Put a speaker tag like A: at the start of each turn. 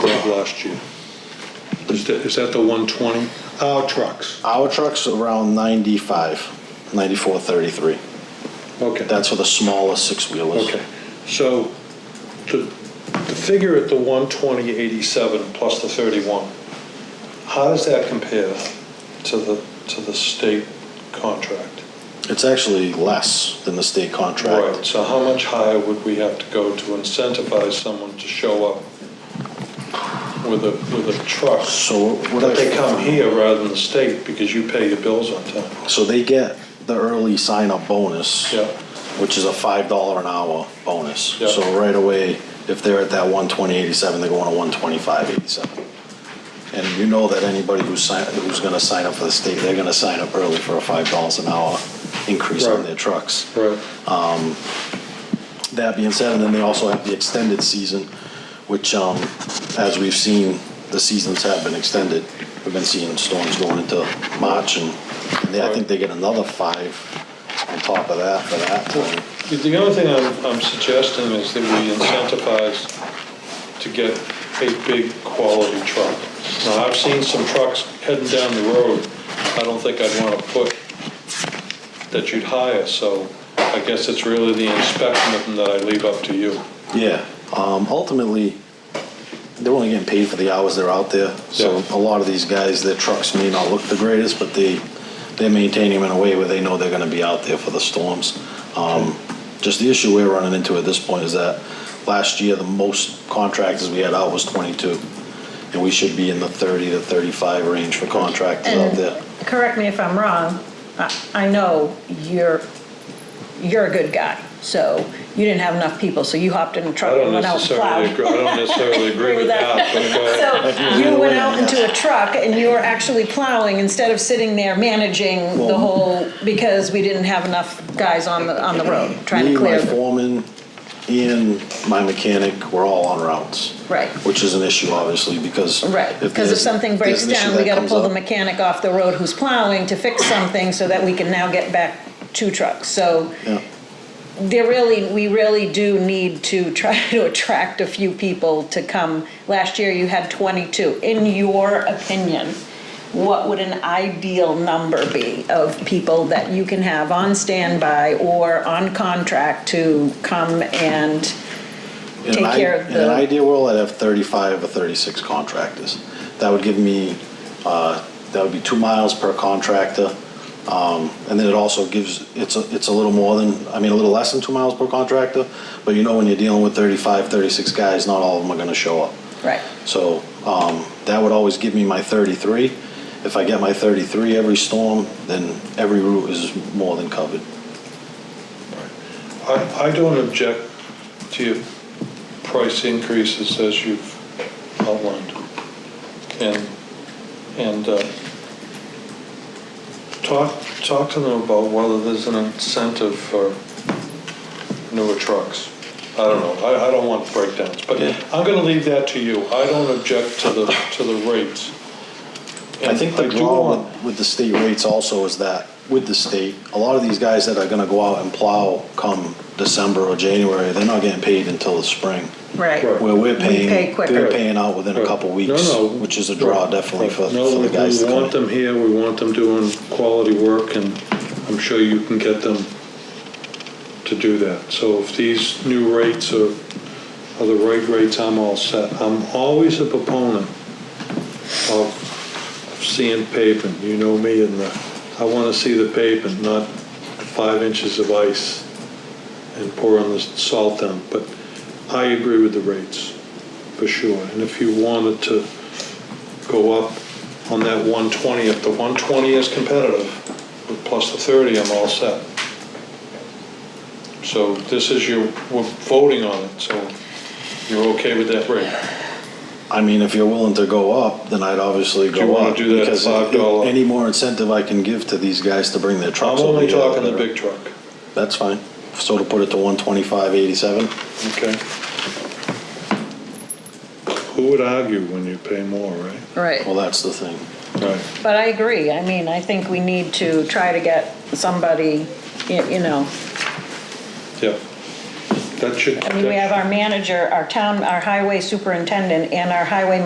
A: I've lost you. Is that, is that the 120? Our trucks,
B: Our truck's around 95, 94, 33.
A: okay.
B: That's for the smaller six-wheelers.
A: Okay, so the, the figure at the 120.87 plus the 31, how does that compare to the, to the state contract?
B: It's actually less than the state contract.
A: Right, so how much higher would we have to go to incentivize someone to show up with a, with a truck?
B: So what
A: That
B: I-
A: they come here rather than the state because you pay your bills on time.
B: So they get the early sign-up bonus.
A: Yeah.
B: Which is a five dollar an hour bonus.
A: Yeah.
B: So right away, if they're at that one twenty eighty-seven, they're going to one twenty-five eighty-seven. And you know that anybody who's sign, who's gonna sign up for the state, they're gonna sign up early for a five dollars an hour increase on
A: Right.
B: their trucks.
A: Right.
B: That being said, and then they also have the extended season, which, um, as we've seen, the seasons have been extended. We've been seeing storms going into March and they, I think they get another five on top of that for that time.
A: The- The only thing I'm, I'm suggesting is that we incentivize to get a big quality truck. Now, I've seen some trucks heading down the road, I don't think I'd want to put that you'd hire, so I guess it's really the inspection of them that I leave up to you.
B: Yeah, um, ultimately, they're only getting paid for the hours they're out there. So
A: Yeah.
B: a lot of these guys, their trucks may not look the greatest, but they, they maintain them in a way where they know they're gonna be out there for the storms. Um, just the issue we're running into at this point is that last year, the most contractors we had out was twenty-two. And we should be in the thirty to thirty-five range for contractors out
C: And-
B: there.
C: Correct me if I'm wrong, I- I know you're, you're a good guy, so you didn't have enough people, so you hopped in a
A: I
C: truck and
A: don't
C: went out and
A: necessarily,
C: plowed.
A: agree- I don't necessarily agree with that, but go ahead.
C: So you went out into a truck and you were actually plowing instead of sitting there managing the
B: Well-
C: whole, because we didn't have enough guys on the, on the road trying
B: Me,
C: to
B: my
C: clear. the-
B: foreman, and my mechanic, we're all on routes.
C: Right.
B: Which is an issue, obviously, because.
C: Right, because if
B: there's-
C: something
B: there's
C: breaks
B: an issue
C: down, we
B: that
C: gotta
B: comes
C: pull the
B: up-
C: mechanic off the road who's plowing to fix something so that we can now get back two trucks, so.
B: Yeah.
C: there really, we really do need to try to attract a few people to come. Last year, you had 22. In your opinion, what would an ideal number be of people that you can have on standby or on contract to come and,
B: In
C: take
B: an i-
C: care of
B: In an
C: the-
B: ideal world, I'd have thirty-five or thirty-six contractors. That would give me, uh, that would be two miles per contractor. Um, and then it also gives, it's, a- it's a little more than, I mean, a little less than two miles per contractor. But you know, when you're dealing with 35, 36 guys, not all of them are gonna show up.
C: right,
B: So um, that would always give me my 33. If I get my 33 every storm, then every route is more than covered.
A: I, I don't object to your price increases as you've outlined. And, and uh, talk, talk to them about whether there's an incentive for newer trucks. I don't know, I, I don't want breakdowns, but
B: Yeah.
A: I'm gonna leave that to you. I don't object to the, to the rates.
B: I think the
A: And do
B: draw
A: want-
B: with, with the state rates also is that with the state, a lot of these guys that are gonna go out and plow come December or January, they're not getting paid until the spring.
C: right.
A: Right.
B: Where we're
C: pay
B: paying,
C: quicker.
B: they're paying out within a
A: Right.
B: couple weeks,
A: No, no.
B: which is a draw definitely for,
A: No,
B: for the guys to
A: We
B: come
A: want them
B: in.
A: here, we want them doing quality work, and I'm sure you can get them to do that. So if these new rates are, are the right rates, I'm all set. I'm always a proponent of sand pavement, you know me, and the, I want to see the pavement, not five inches of ice and pouring the salt down, but I agree with the rates, for sure. And if you wanted to go up on that 120, if the 120 is competitive, with plus the 30, I'm all set. So this is your, we're voting on it, so you're okay with that rate?
B: I mean, if you're willing to go up, then I'd obviously
A: Do you
B: go
A: wanna
B: up.
A: do that at
B: because
A: $5?
B: Any more incentive I can give to these guys to bring their
A: I'm
B: trucks over
A: only
B: here, the
A: talking the
B: better.
A: big truck,
B: That's fine. So to put it to one twenty-five eighty-seven,
A: okay? Who would argue when you pay more, right?
C: Right.
B: well, that's the thing.
A: Right.
C: But I agree, I mean, I think we need to try to get somebody, y- you know,
A: Yeah. That should.
C: I mean, we
A: that
C: have our manager, our town, our highway superintendent, and our highway